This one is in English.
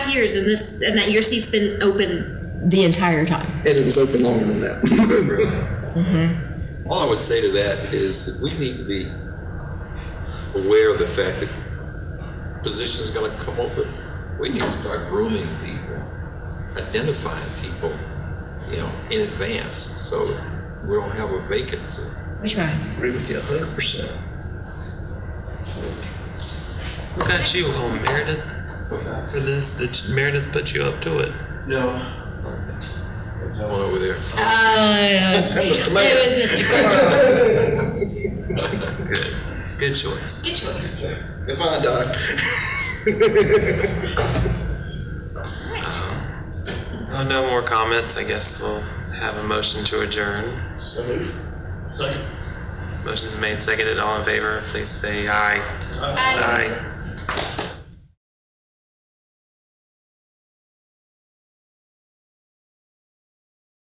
years and this, and that your seat's been open. the entire time. and it was open longer than that. Mm-hmm. All I would say to that is that we need to be aware of the fact that positions gonna come open. We need to start grooming people, identifying people, you know, in advance, so that we don't have a vacancy. Which one? Agree with you a hundred percent. What got you on Meredith for this? Did you- Meredith put you up to it? Come on over there. Uh, That was the man. It was Mr. Coral. Good. Good choice. Good choice. If I died, Well, no more comments. I guess we'll have a motion to adjourn. so move. Motion made, seconded. All in favor, please say aye. Bye. Aye.